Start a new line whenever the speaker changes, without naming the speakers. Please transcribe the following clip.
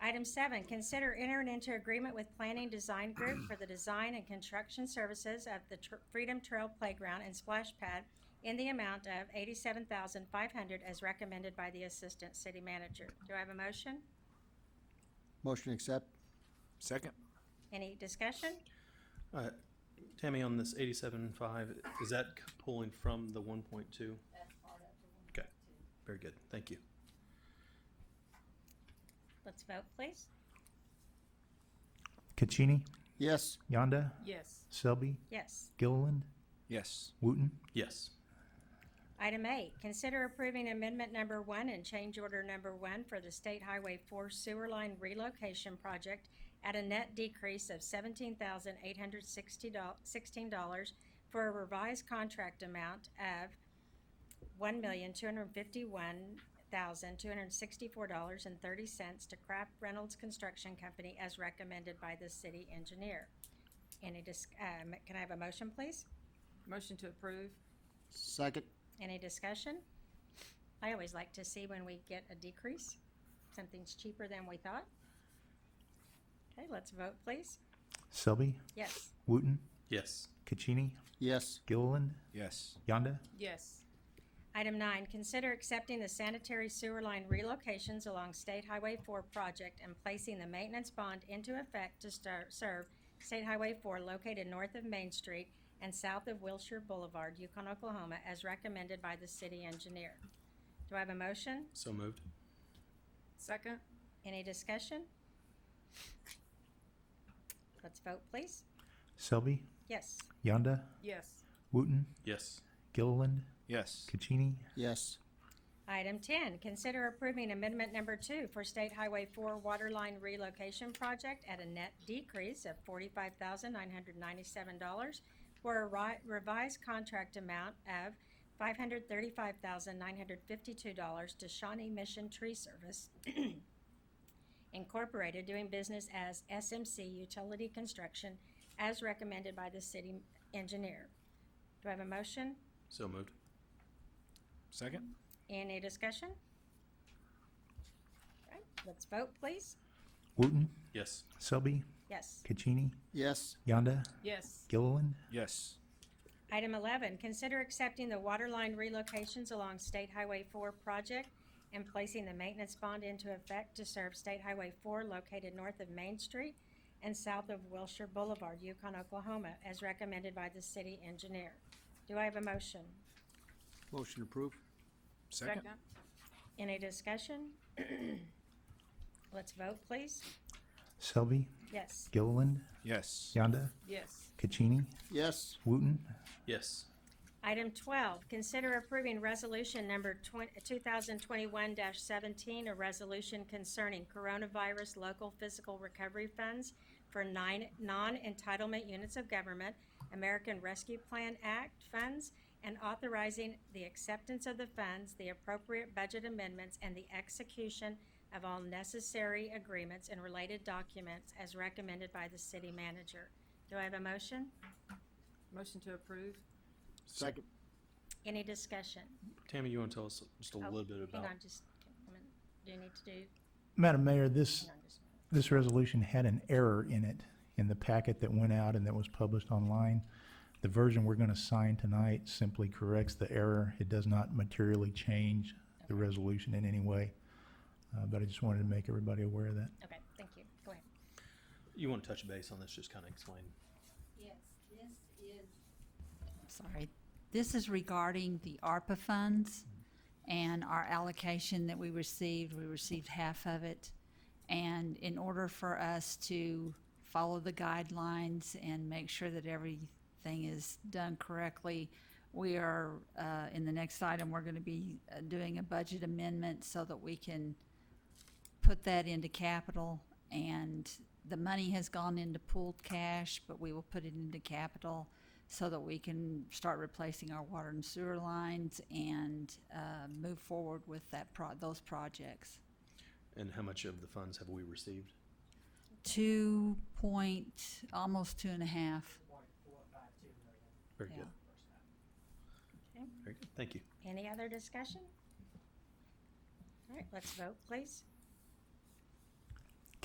Item seven, consider entering into agreement with Planning Design Group for the design and construction services of the Tr- Freedom Trail Playground and Splash Pad in the amount of eighty-seven thousand five hundred as recommended by the Assistant City Manager. Do I have a motion?
Motion accept.
Second.
Any discussion?
Uh, Tammy, on this eighty-seven five, is that c- pulling from the one point two? Okay, very good, thank you.
Let's vote, please.
Caccini,
Yes.
Yonda,
yes,
Selby,
Yes.
Gilliland,
Yes.
Wooten,
Yes,
Item eight, consider approving amendment number one and change order number one for the State Highway Four Sewer Line Relocation Project at a net decrease of seventeen thousand eight hundred sixty dollars for a revised contract amount of one million two hundred fifty-one thousand two hundred sixty-four dollars and thirty cents to Kraft Reynolds Construction Company as recommended by the city engineer. Any dis- um, can I have a motion, please?
motion to approve,
Second.
Any discussion? I always like to see when we get a decrease, something's cheaper than we thought. Okay, let's vote, please.
Selby,
Yes.
Wooten,
yes,
Caccini,
Yes.
Gilliland,
Yes.
Yonda,
yes,
Item nine, consider accepting the sanitary sewer line relocations along State Highway Four project and placing the maintenance bond into effect to star- serve State Highway Four located north of Main Street and south of Wilshire Boulevard, Yukon, Oklahoma, as recommended by the city engineer. Do I have a motion?
so moved.
second,
Any discussion? Let's vote, please.
Selby,
Yes.
Yonda,
yes,
Wooten,
Yes,
Gilliland,
Yes.
Caccini,
Yes.
Item ten, consider approving amendment number two for State Highway Four Waterline Relocation Project at a net decrease of forty-five thousand nine hundred ninety-seven dollars for a ri- revised contract amount of five hundred thirty-five thousand nine hundred fifty-two dollars to Shawnee Mission Tree Service Incorporated, doing business as SMC Utility Construction, as recommended by the city engineer. Do I have a motion?
so moved.
Second.
Any discussion? Alright, Let's vote, please.
Wooten,
Yes,
Selby,
Yes.
Caccini,
Yes.
Yonda,
yes,
Gilliland,
Yes.
Item eleven, consider accepting the water line relocations along State Highway four project and placing the maintenance bond into effect to serve State Highway four located north of Main Street and south of Wilshire Boulevard, Yukon, Oklahoma, as recommended by the city engineer. Do I have a motion?
Motion approved.
Second.
second,
Any discussion? Let's vote, please.
Selby,
Yes.
Gilliland,
Yes.
Yonda,
yes,
Caccini,
Yes.
Wooten,
yes,
Item twelve, consider approving resolution number two thousand twenty-one seventeen, a resolution concerning coronavirus local physical recovery funds for nine non-entitlement units of government, American Rescue Plan Act funds, and authorizing the acceptance of the funds, the appropriate budget amendments, and the execution of all necessary agreements and related documents as recommended by the city manager. Do I have a motion?
motion to approve,
Second.
Any discussion?
Tammy, you wanna tell us just a
Oh,
little bit about,
Hang on, just, a minute. do you need to do,
Madam Mayor, this,
hang on just a minute.
this resolution had an error in it, in the packet that went out and that was published online. The version we're gonna sign tonight simply corrects the error. It does not materially change the resolution in any way. Uh, but I just wanted to make everybody aware of that.
Okay, thank you, go ahead.
you wanna touch base on this, just kinda explain.
Yes, this is, sorry, this is regarding the ARPA funds and our allocation that we received. We received half of it. And in order for us to follow the guidelines and make sure that everything is done correctly, we are, uh, in the next item, we're gonna be uh, doing a budget amendment so that we can put that into capital and the money has gone into pooled cash, but we will put it into capital so that we can start replacing our water and sewer lines and uh, move forward with that pro- those projects.
And how much of the funds have we received?
Two point, almost two and a half.
Very
Yeah.
good.
Okay.
Very good, thank you.
Any other discussion? All right, let's vote, please.